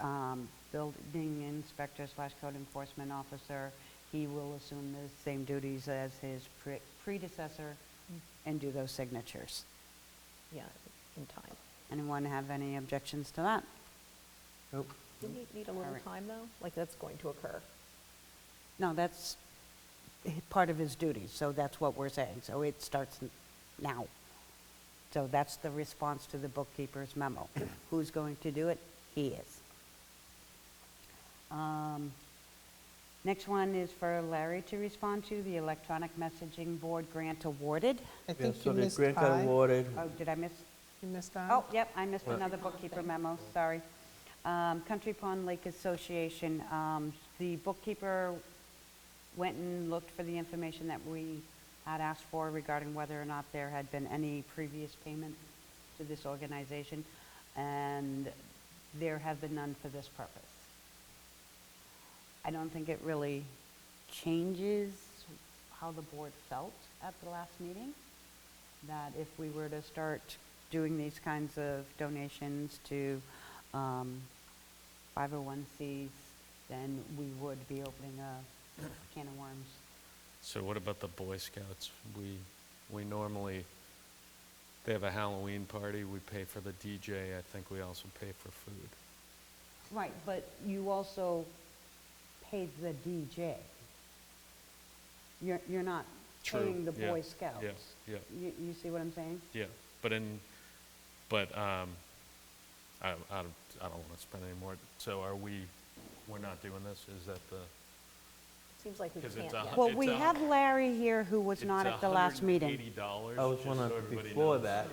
um, inspector slash code enforcement officer. He will assume the same duties as his pre- predecessor and do those signatures. yeah, in time. Anyone have any objections to that? Nope. Didn't he need a little Alright. time, though? Like, that's going to occur. No, that's h- part of his duty, so that's what we're saying. So it starts n- now. So that's the response to the bookkeeper's memo. Who's going to do it? He is. Um, Next one is for Larry to respond to, the electronic messaging board grant awarded. I Yeah, think so you the missed grant got I. You awarded. Oh, did I miss? missed I. Oh, yep, I missed another bookkeeper memo, sorry. Um, Country Pond Lake Association, um, the bookkeeper went and looked for the information that we had asked for regarding whether or not there had been any previous payment to this organization, and there have been none for this purpose. I don't think it really changes how the board felt at the last meeting, that if we were to start doing these kinds of donations to um, 501Cs, then we would be opening a can of worms. So what about the Boy Scouts? We, we normally, they have a Halloween party, we pay for the DJ, I think we also pay for food. Right, but you also pay the DJ. You're, you're not True, paying the yeah, Boy Scouts. yeah, yeah. You, you see what I'm saying? Yeah, but in, but, um, I, I don't, I don't wanna spend any more, so are we, we're not doing this, is that the? Seems like we 'Cause can't it's a yet. hu- Well, we a- have Larry here who was not It's at the last meeting. $180, I was just wondering so everybody before knows. that,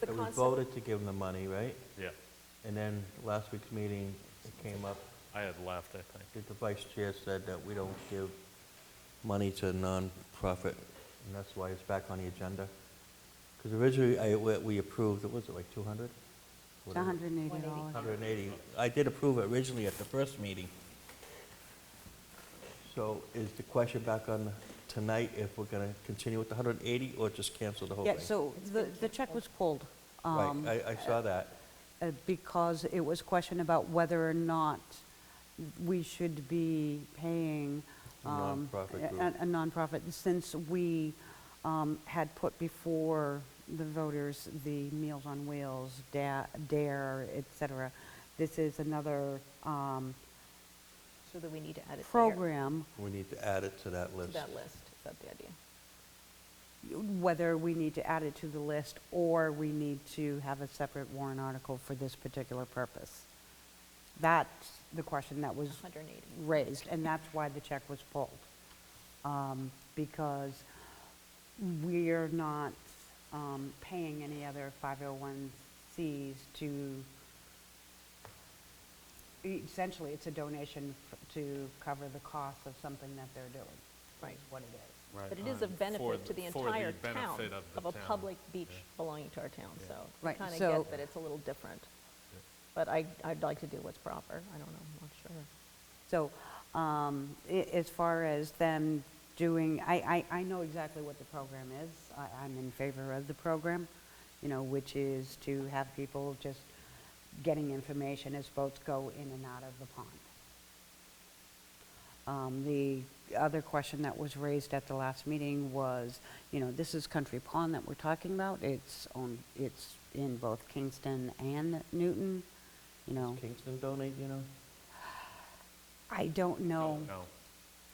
the that we concept- voted to give them the money, right? Yeah, And then last week's meeting, it came up, I had left, I think. that the vice chair said that we don't give money to nonprofit, and that's why it's back on the agenda. Because originally, I, we we approved, what was it, like 200? It's $180. 180. I did approve it originally at the first meeting. So is the question back on tonight if we're going to continue with the 180 or just cancel the whole thing? Yeah, so the, the check was pulled. Right, um, I, I saw that. uh, because it was question about whether or not we should be paying A um, nonprofit a- group. A a nonprofit, since we um, had put before the voters the Meals on Wheels, Da- DARE, et cetera. This is another um, So that we need to add it there, program, We need to add it to that to list. that list. Is that the idea? whether we need to add it to the list or we need to have a separate warrant article for this particular purpose. That's the question that was 180. raised, and that's why the check was pulled. Um, Because we're not um, paying any other 501Cs to, essentially, it's a donation f- to cover the cost of something that they're doing. is Right. What it is. Right, But it is uh, a for benefit the- to the for the entire town benefit of the of a town, public beach yeah. belonging to our town, so. Right, I kind so- of get that it's a little different. But I, I'd like to do what's proper. I don't know, I'm not sure. So um, i- as far as them doing, I, I, I know exactly what the program is. I, I'm in favor of the program, you know, which is to have people just getting information as boats go in and out of the pond. Um, The other question that was raised at the last meeting was, you know, this is Country Pond that we're talking about. It's on, it's in both Kingston and Newton, you know. Does Kingston donate, you know? I don't know. Don't know,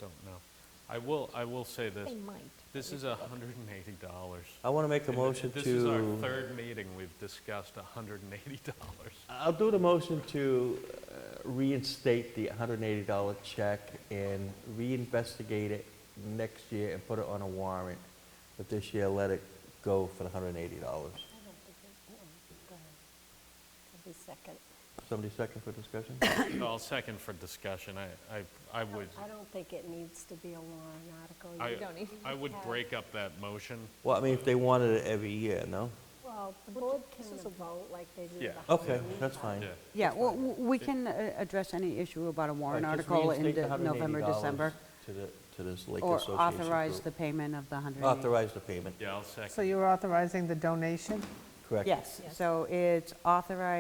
don't know. I will, I will say this, They might. this is $180. I want to make a And motion to... This is our third meeting, we've discussed $180. I'll do the motion to uh, reinstate the $180 check and reinvestigate it next year and put it on a warrant. But this year, let it go for the $180. second. Somebody second for discussion? I'll second for discussion, I, I, I would, I don't think it needs to be a warrant article. You I, don't- don't even I would have- break up that motion. Well, I mean, if they wanted it every year, no? Well, the board this can is a- vote like they do. Yeah. the Okay, Halloween that's party. fine. Yeah, Yeah, well, w- we can uh, address any issue about a warrant All right, just article in reinstate the the November, $180 December, To the, to this Lake or Association authorize the group. payment of the 100. Authorize the payment, yeah, I'll So second. you're authorizing the donation? correct? Yes, so it's authorize